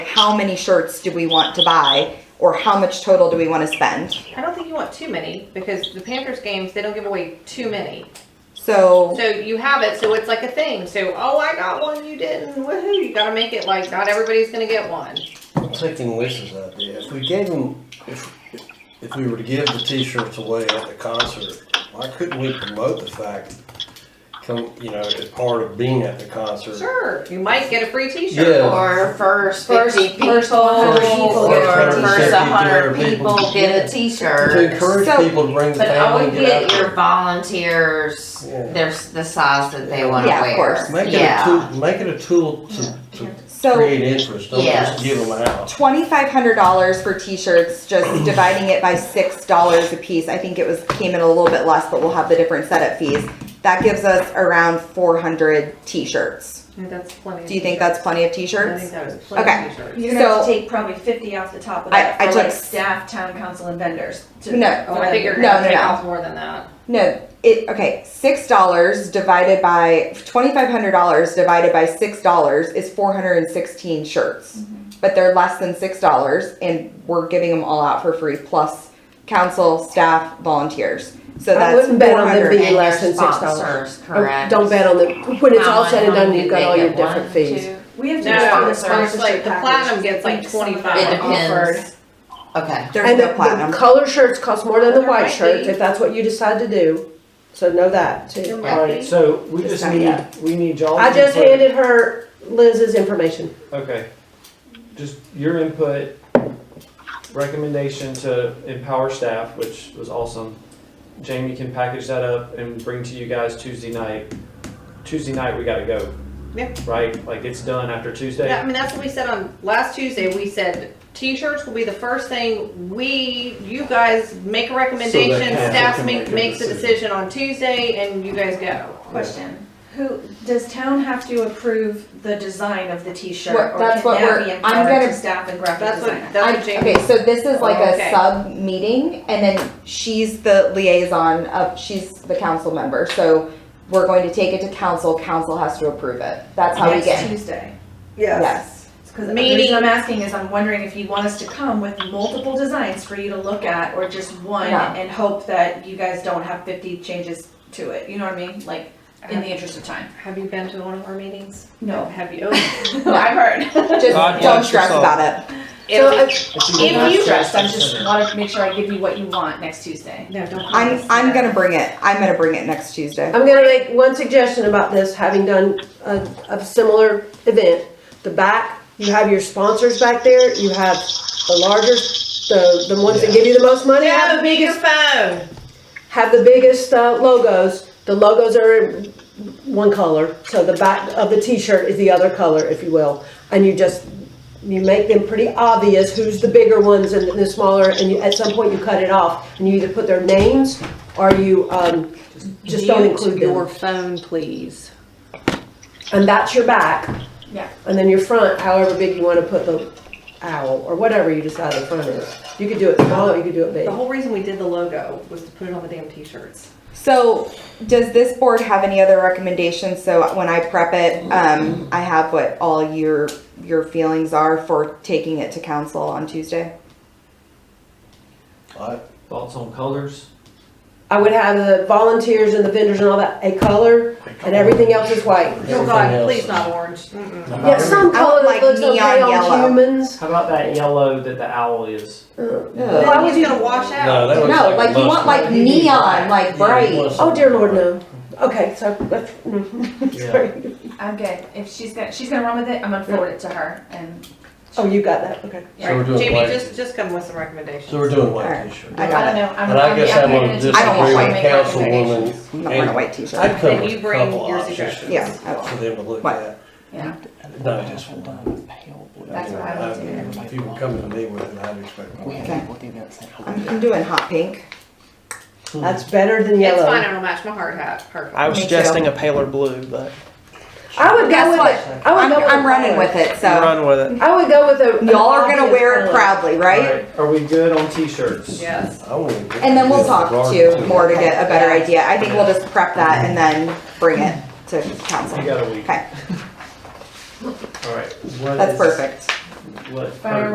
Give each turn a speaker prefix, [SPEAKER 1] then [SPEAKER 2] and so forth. [SPEAKER 1] how many shirts do we want to buy or how much total do we want to spend?
[SPEAKER 2] I don't think you want too many because the Panthers games, they don't give away too many.
[SPEAKER 1] So,
[SPEAKER 2] So you have it, so it's like a thing. So, oh, I got one, you didn't. Woohoo. You got to make it like not everybody's going to get one.
[SPEAKER 3] I'm taking Lisa's idea. If we gave them, if, if we were to give the t-shirts away at the concert, why couldn't we promote the fact, come, you know, as part of being at the concert?
[SPEAKER 2] Sure. You might get a free t shirt.
[SPEAKER 3] Yeah.
[SPEAKER 4] Or first
[SPEAKER 5] First-
[SPEAKER 4] fifty people,
[SPEAKER 5] first
[SPEAKER 4] or
[SPEAKER 5] 100 people get a
[SPEAKER 4] first
[SPEAKER 3] t-shirt.
[SPEAKER 4] hundred
[SPEAKER 3] Yeah.
[SPEAKER 4] people get a
[SPEAKER 3] To
[SPEAKER 4] t-shirt.
[SPEAKER 3] encourage
[SPEAKER 1] So-
[SPEAKER 3] people to bring the
[SPEAKER 4] But I
[SPEAKER 3] family
[SPEAKER 4] would
[SPEAKER 3] and get out
[SPEAKER 4] get your
[SPEAKER 3] there.
[SPEAKER 4] volunteers,
[SPEAKER 3] Yeah.
[SPEAKER 4] their, s- the size that they wanna
[SPEAKER 1] Yeah, of
[SPEAKER 4] wear.
[SPEAKER 1] course.
[SPEAKER 3] Make it a
[SPEAKER 4] Yeah,
[SPEAKER 3] tool, make it a tool to, to
[SPEAKER 1] so
[SPEAKER 3] create interest, don't just
[SPEAKER 4] Yes.
[SPEAKER 3] give them out.
[SPEAKER 1] twenty-five hundred dollars for t-shirts, just dividing it by six dollars a piece. I think it was, came in a little bit less, but we'll have the different setup fees. That gives us around four hundred t-shirts.
[SPEAKER 2] I think That's plenty. of
[SPEAKER 1] Do you think
[SPEAKER 2] t-shirts.
[SPEAKER 1] that's plenty of
[SPEAKER 2] I think
[SPEAKER 1] t-shirts?
[SPEAKER 2] that was plenty
[SPEAKER 1] Okay.
[SPEAKER 2] of t-shirts.
[SPEAKER 5] You're gonna have
[SPEAKER 1] So-
[SPEAKER 5] to take probably fifty off the top of
[SPEAKER 1] I-
[SPEAKER 5] that
[SPEAKER 1] I
[SPEAKER 5] for
[SPEAKER 1] took
[SPEAKER 5] like
[SPEAKER 1] s-
[SPEAKER 5] staff, town council and vendors. to-
[SPEAKER 1] No.
[SPEAKER 2] Oh, I think you're
[SPEAKER 1] No,
[SPEAKER 2] going to
[SPEAKER 1] no,
[SPEAKER 2] take
[SPEAKER 1] no.
[SPEAKER 2] off more than that.
[SPEAKER 1] No, it, okay, six dollars divided by, twenty-five hundred dollars divided by six dollars is four hundred and sixteen shirts.
[SPEAKER 6] Mm-hmm.
[SPEAKER 1] But they're less than six dollars and we're giving them all out for free, plus council, staff, volunteers. So
[SPEAKER 6] I
[SPEAKER 1] that's
[SPEAKER 6] wouldn't bet on them
[SPEAKER 1] 400.
[SPEAKER 6] being
[SPEAKER 4] And
[SPEAKER 6] less
[SPEAKER 4] your
[SPEAKER 6] than six dollars. Oh,
[SPEAKER 4] sponsors, correct.
[SPEAKER 6] Don't bet on them, when it's all said and done, you've got all your different fees.
[SPEAKER 5] We have to
[SPEAKER 2] No,
[SPEAKER 5] do the
[SPEAKER 2] it's like
[SPEAKER 5] sponsorship
[SPEAKER 2] the
[SPEAKER 5] package.
[SPEAKER 2] platinum gets like
[SPEAKER 5] some of
[SPEAKER 2] 25.
[SPEAKER 5] them
[SPEAKER 2] It
[SPEAKER 5] are offered.
[SPEAKER 6] depends. Okay.
[SPEAKER 1] There's
[SPEAKER 6] And
[SPEAKER 1] no
[SPEAKER 6] the,
[SPEAKER 1] platinum.
[SPEAKER 6] the color shirts cost more than the
[SPEAKER 2] There
[SPEAKER 6] white
[SPEAKER 2] might
[SPEAKER 6] shirts,
[SPEAKER 2] be.
[SPEAKER 6] if that's what you decide to do, so know that
[SPEAKER 2] There
[SPEAKER 6] too.
[SPEAKER 2] might
[SPEAKER 7] All
[SPEAKER 2] be.
[SPEAKER 7] right, so we
[SPEAKER 1] Just
[SPEAKER 7] just
[SPEAKER 1] not
[SPEAKER 7] need,
[SPEAKER 1] yet.
[SPEAKER 7] we need y'all.
[SPEAKER 6] I just
[SPEAKER 7] input.
[SPEAKER 6] handed her Liz's information.
[SPEAKER 7] Okay, just your input, recommendation to empower staff, which was awesome. Jamie can package that up and bring to you guys Tuesday night. Tuesday night, we gotta go.
[SPEAKER 2] Yeah.
[SPEAKER 7] Right, like it's done after
[SPEAKER 2] Yeah,
[SPEAKER 7] Tuesday.
[SPEAKER 2] I mean, that's what we said on last Tuesday. We said t-shirts will be the first thing we, you guys make a
[SPEAKER 3] So
[SPEAKER 2] recommendation,
[SPEAKER 3] that council
[SPEAKER 2] staff
[SPEAKER 3] can
[SPEAKER 2] make,
[SPEAKER 3] make a
[SPEAKER 2] makes a
[SPEAKER 3] decision.
[SPEAKER 2] decision on Tuesday and you guys go.
[SPEAKER 5] Question, who, does town have to approve the design of the t-shirt?
[SPEAKER 1] What-
[SPEAKER 5] or
[SPEAKER 1] that's
[SPEAKER 5] can
[SPEAKER 1] what
[SPEAKER 5] that
[SPEAKER 1] we're-
[SPEAKER 5] be
[SPEAKER 1] I'm
[SPEAKER 5] empowered to
[SPEAKER 1] gonna-
[SPEAKER 5] Staff and graphic
[SPEAKER 2] That's
[SPEAKER 5] designer.
[SPEAKER 2] what, that's what
[SPEAKER 1] I'm- okay,
[SPEAKER 2] Jamie,
[SPEAKER 1] so this is like a
[SPEAKER 2] Okay.
[SPEAKER 1] sub meeting, and then she's the liaison of, she's the council member, so we're going to take it to council, council has to approve it. That's how we
[SPEAKER 5] Next
[SPEAKER 1] get,
[SPEAKER 5] Tuesday.
[SPEAKER 1] yes.
[SPEAKER 5] Because the
[SPEAKER 2] Meeting.
[SPEAKER 5] reason I'm asking is I'm wondering if you want us to come with multiple designs for you to look at or just one
[SPEAKER 1] No.
[SPEAKER 5] and hope that you guys don't have fifty changes to it, you know what I mean? Like, in the interest of time.
[SPEAKER 2] have you been to one of our meetings?
[SPEAKER 5] No.
[SPEAKER 2] Oh, Have you?
[SPEAKER 5] I've heard.
[SPEAKER 1] Just
[SPEAKER 7] God
[SPEAKER 1] don't
[SPEAKER 7] bless
[SPEAKER 1] stress
[SPEAKER 7] yourself.
[SPEAKER 1] about it.
[SPEAKER 6] So
[SPEAKER 2] If-
[SPEAKER 5] I'm
[SPEAKER 2] If
[SPEAKER 5] not
[SPEAKER 2] you-
[SPEAKER 5] stressed, I just wanted to make sure I give you what you want next Tuesday.
[SPEAKER 2] No, don't.
[SPEAKER 1] I'm, I'm gonna bring it, I'm gonna bring it next Tuesday.
[SPEAKER 6] I'm gonna make one suggestion about this, having done a, a similar event. The back, you have your sponsors back there, you have the larger, the, the ones that give you the most money, have the biggest,
[SPEAKER 2] phone.
[SPEAKER 6] have the biggest uh, logos. The logos are in one color, so the back of the t-shirt is the other color, if you will. And you just, you make them pretty obvious who's the bigger ones and the smaller, and you, at some point you cut it off. And you either put their names or you, um, just don't include them.
[SPEAKER 2] phone, please.
[SPEAKER 6] And that's your back.
[SPEAKER 5] Yeah.
[SPEAKER 6] And then your front, however big you wanna put the owl, or whatever you decide the front is. You could do it small, or you could do it big.
[SPEAKER 2] The whole reason we did the logo was to put it on the damn t-shirts.
[SPEAKER 1] So, does this board have any other recommendations? So when I prep it, um, I have what all your, your feelings are for taking it to council on Tuesday?
[SPEAKER 3] I-
[SPEAKER 7] Thoughts on colors?
[SPEAKER 6] I would have the volunteers and the vendors and all that, a color, and everything else is white.
[SPEAKER 2] Oh
[SPEAKER 3] everything
[SPEAKER 2] God,
[SPEAKER 3] else
[SPEAKER 2] please
[SPEAKER 3] is-
[SPEAKER 2] not orange. Mm-mm.
[SPEAKER 6] Yeah, some
[SPEAKER 1] I
[SPEAKER 6] color
[SPEAKER 1] would
[SPEAKER 6] that
[SPEAKER 1] like
[SPEAKER 6] looks okay
[SPEAKER 1] neon yellow.
[SPEAKER 6] on humans. Uh,
[SPEAKER 7] How about that yellow that the owl is?
[SPEAKER 1] Ugh.
[SPEAKER 6] Why would
[SPEAKER 2] It's
[SPEAKER 6] you,
[SPEAKER 2] gonna wash out.
[SPEAKER 3] No, that looks
[SPEAKER 1] No,
[SPEAKER 3] a
[SPEAKER 1] like you want
[SPEAKER 3] mustard.
[SPEAKER 1] like neon, like
[SPEAKER 3] Yeah, you
[SPEAKER 1] bright.
[SPEAKER 3] want
[SPEAKER 6] oh dear
[SPEAKER 3] something
[SPEAKER 6] lord,
[SPEAKER 3] bright.
[SPEAKER 6] no. Okay, so that's, mm,
[SPEAKER 7] Yeah.
[SPEAKER 6] sorry.
[SPEAKER 5] I'm good. If she's gonna, she's gonna run with it, I'm gonna forward it to her and.
[SPEAKER 6] Oh, you got that, okay.
[SPEAKER 3] So we're doing
[SPEAKER 2] Jamie,
[SPEAKER 3] white.
[SPEAKER 2] just, just come with some recommendations.
[SPEAKER 3] So we're doing white
[SPEAKER 1] Alright.
[SPEAKER 3] t-shirts.
[SPEAKER 1] I
[SPEAKER 5] I
[SPEAKER 1] got
[SPEAKER 5] don't
[SPEAKER 1] it.
[SPEAKER 5] know, I'm.
[SPEAKER 3] And I
[SPEAKER 5] I'm-
[SPEAKER 3] guess
[SPEAKER 5] I'm
[SPEAKER 3] I'm gonna
[SPEAKER 5] gonna just-
[SPEAKER 1] I don't want
[SPEAKER 3] disagree
[SPEAKER 1] white.
[SPEAKER 3] with councilwoman.
[SPEAKER 1] I'm not wearing a white
[SPEAKER 3] I'd
[SPEAKER 1] t-shirt.
[SPEAKER 3] come
[SPEAKER 2] Then
[SPEAKER 3] with
[SPEAKER 2] you
[SPEAKER 3] a
[SPEAKER 2] bring
[SPEAKER 3] couple
[SPEAKER 2] your
[SPEAKER 3] options
[SPEAKER 2] suggestions.
[SPEAKER 1] Yeah, I will.
[SPEAKER 3] for them to look
[SPEAKER 1] What?
[SPEAKER 3] at.
[SPEAKER 5] Yeah.
[SPEAKER 3] No, just one.
[SPEAKER 5] That's what I would do.
[SPEAKER 3] If you were coming to me with it, I'd expect more.
[SPEAKER 1] Okay. I'm, I'm doing hot pink.
[SPEAKER 6] That's better than
[SPEAKER 2] It's fine,
[SPEAKER 6] yellow.
[SPEAKER 2] it'll match my hard hat, perfect.
[SPEAKER 8] I was
[SPEAKER 1] Me
[SPEAKER 8] suggesting
[SPEAKER 1] too.
[SPEAKER 8] a paler blue, but
[SPEAKER 6] I would
[SPEAKER 1] Guess
[SPEAKER 6] go with
[SPEAKER 1] what?
[SPEAKER 6] it. Oh, I would
[SPEAKER 1] I'm,
[SPEAKER 6] go with
[SPEAKER 1] I'm
[SPEAKER 6] the
[SPEAKER 1] running
[SPEAKER 6] color.
[SPEAKER 1] with it, so
[SPEAKER 8] run with it.
[SPEAKER 6] I would go with a.
[SPEAKER 1] y'all are gonna wear it
[SPEAKER 6] proud.
[SPEAKER 1] proudly,
[SPEAKER 7] All
[SPEAKER 1] right?
[SPEAKER 7] Are we good on t-shirts?
[SPEAKER 2] Yes.
[SPEAKER 3] I wouldn't get
[SPEAKER 1] And then we'll
[SPEAKER 3] this
[SPEAKER 1] talk
[SPEAKER 3] regardless
[SPEAKER 1] to more to get a better idea. I think we'll just prep that and then bring it to council.
[SPEAKER 7] You got a week.
[SPEAKER 1] Okay,
[SPEAKER 7] All right. what
[SPEAKER 1] that's
[SPEAKER 7] is-
[SPEAKER 1] perfect.
[SPEAKER 9] let her
[SPEAKER 7] Fire